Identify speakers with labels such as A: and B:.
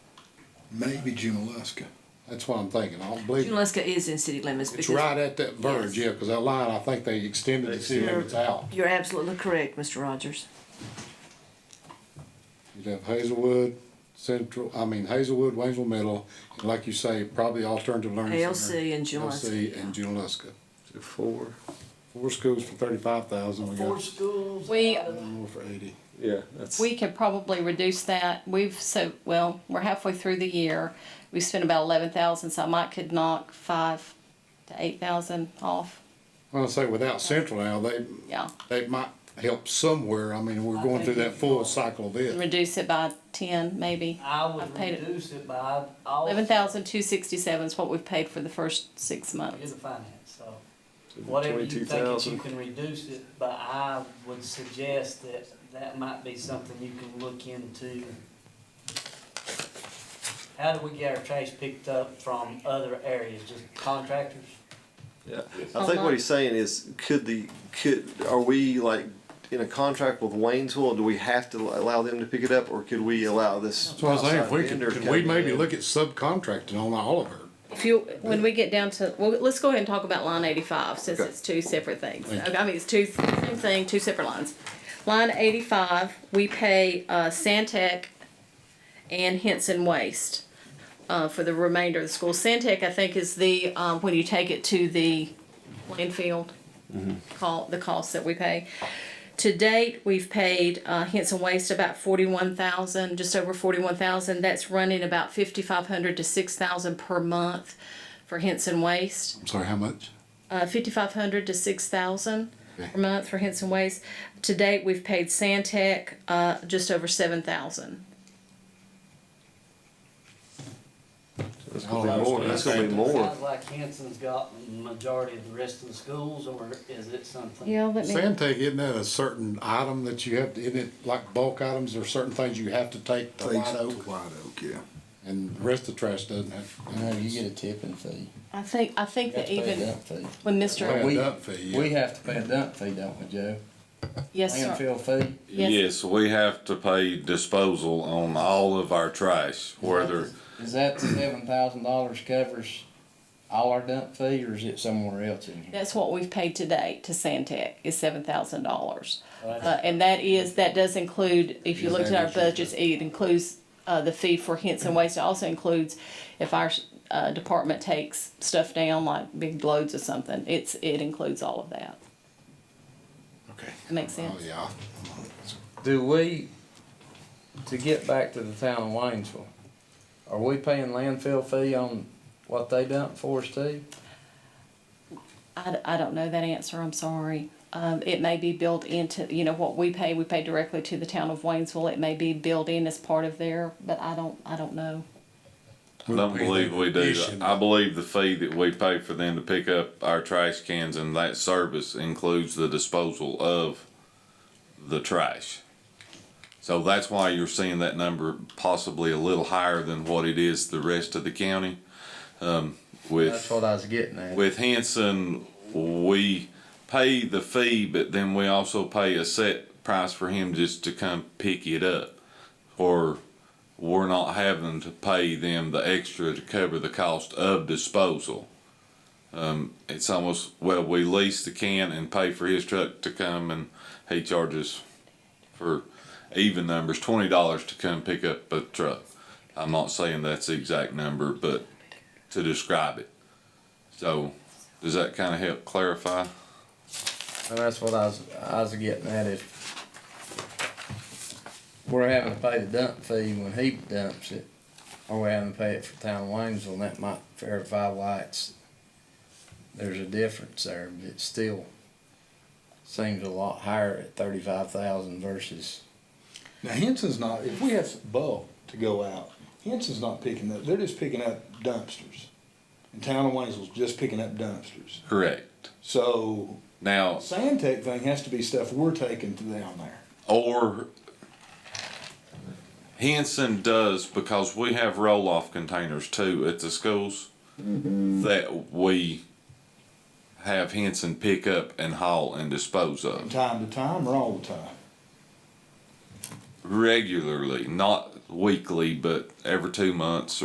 A: maybe Junaluska.
B: That's what I'm thinking. I don't believe,
C: Junaluska is in city limits
B: it's
C: because
B: right at that verge,
C: Yes.
B: yeah, because that line, I think they extended the city limits out.
C: you're absolutely correct, Mr. Rogers.
B: You'd have Hazelwood, Central, I mean Hazelwood, Waynesville Middle, and like you say, probably Alternative Learning Center.
C: ALC and Junaluska,
B: ALC and Junaluska.
D: Four,
B: Four schools for thirty-five thousand, we
E: Four
B: got
E: schools.
F: We-
E: out of-
B: one more for eighty.
D: yeah, that's.
F: We could probably reduce that. We've so well, we're halfway through the year. We spent about eleven thousand, so I might could knock five to eight thousand off.
B: Well, I say without Central now, they,
F: Yeah,
B: they might help somewhere. I mean, we're going through that full cycle of it.
F: reduce it by ten maybe.
E: I
F: I
E: would
F: paid it.
E: reduce it by all.
F: Eleven thousand two sixty-seven is what we've paid for the first six
E: You're
F: months.
E: the finance, so whatever you think that
D: 22,000.
E: you can reduce it, but I would suggest that that might be something you can look into. How do we get our trash picked up from other areas, just contractors?
D: Yeah, I think what he's saying is, could the could are we like in a contract with Waynesville? Do we have to allow them to pick it up, or could we allow this?
B: So I was saying, if we could,
D: outside vendor
B: could we
D: coming
B: maybe
D: in?
B: look at subcontracting on all of her?
F: If you, when we get down to, well, let's go ahead and talk about line eighty-five since
D: Okay.
F: it's two separate things.
B: Thank you.
F: Okay, I mean, it's two, same thing, two separate lines. Line eighty-five, we pay, uh, Santec and Henson Waste, uh, for the remainder of the school. Santec, I think, is the, um, when you take it to the landfill,
B: Mm-hmm.
F: call, the cost that we pay. To date, we've paid uh, Henson Waste about forty-one thousand, just over forty-one thousand. That's running about fifty-five hundred to six thousand per month for Henson Waste.
B: I'm sorry, how much?
F: Uh, fifty-five hundred to six thousand
B: Okay.
F: per month for Henson Waste. To date, we've paid Santec uh, just over seven thousand.
D: That's gonna be more. That's gonna be more.
E: Sounds like Hanson's got majority of the rest of the schools, or is it something?
F: Yeah, let me.
B: Sandtech, isn't that a certain item that you have, to isn't it like bulk items or certain things you have to take to White Oak?
A: White Oak, yeah.
B: And the rest of the trash doesn't have.
G: No, you get a tipping fee.
F: I think I think
G: You have
F: that
G: to pay Oh, a
F: even
G: dump fee.
F: when
B: Pay
F: Mr.
B: a
G: We-
B: dump fee, yeah.
G: We have to pay a dump fee, don't we, Joe?
F: Yes, sir.
G: Landfill fee.
F: Yes.
H: Yes, we have to pay disposal on all of our trash, whether,
G: Is that the seven thousand dollars covers all our dump fee, or is it somewhere else in here?
F: That's what we've paid to date to Santec is seven thousand dollars.
E: Right.
F: Uh, and that is, that does include, if you looked at our budgets, it includes, uh, the fee for Henson Waste. It also includes if our, uh, department takes stuff down, like big loads or something, it's, it includes all of that.
B: Okay.
F: Makes
B: Oh,
F: sense?
B: yeah.
G: Do we, to get back to the town of Waynesville, are we paying landfill fee on what they dump for us too?
F: I, d- I don't know that answer, I'm sorry. Um, it may be built into, you know, what we pay, we pay directly to the town of Waynesville. It may be built in as part of their, but I don't, I don't know.
H: I don't believe we do. that. I believe the fee that we pay for them to pick up our trash cans and that service includes the disposal of the trash. So that's why you're seeing that number possibly a little higher than what it is the rest of the county. Um, with.
G: That's what I was getting at.
H: With Henson, we pay the fee, but then we also pay a set price for him just to come pick it up. Or we're not having to pay them the extra to cover the cost of disposal. Um, it's almost, well, we lease the can and pay for his truck to come and he charges for even numbers, twenty dollars to come pick up a truck. I'm not saying that's the exact number, but to describe it. So, does that kind of help clarify?
G: And that's what I was, I was getting at is we're having to pay the dump fee when he dumps it, or we're having to pay it for town Waynesville, and that might verify why it's, there's a difference there, but it still seems a lot higher at thirty-five thousand versus,
A: Now Henson's not, if we have bulk to go out, Henson's not picking up, they're just picking up dumpsters. And Town of Waynesville's just picking up dumpsters.
H: Correct.
A: So
H: Now,
A: Sandtech thing has to be stuff we're taking to down there.
H: or Henson does because we have roll off containers too at the schools that we have Henson pick up and haul and dispose
A: From
H: of
A: time to time or all the time.
H: regularly, not weekly, but every two months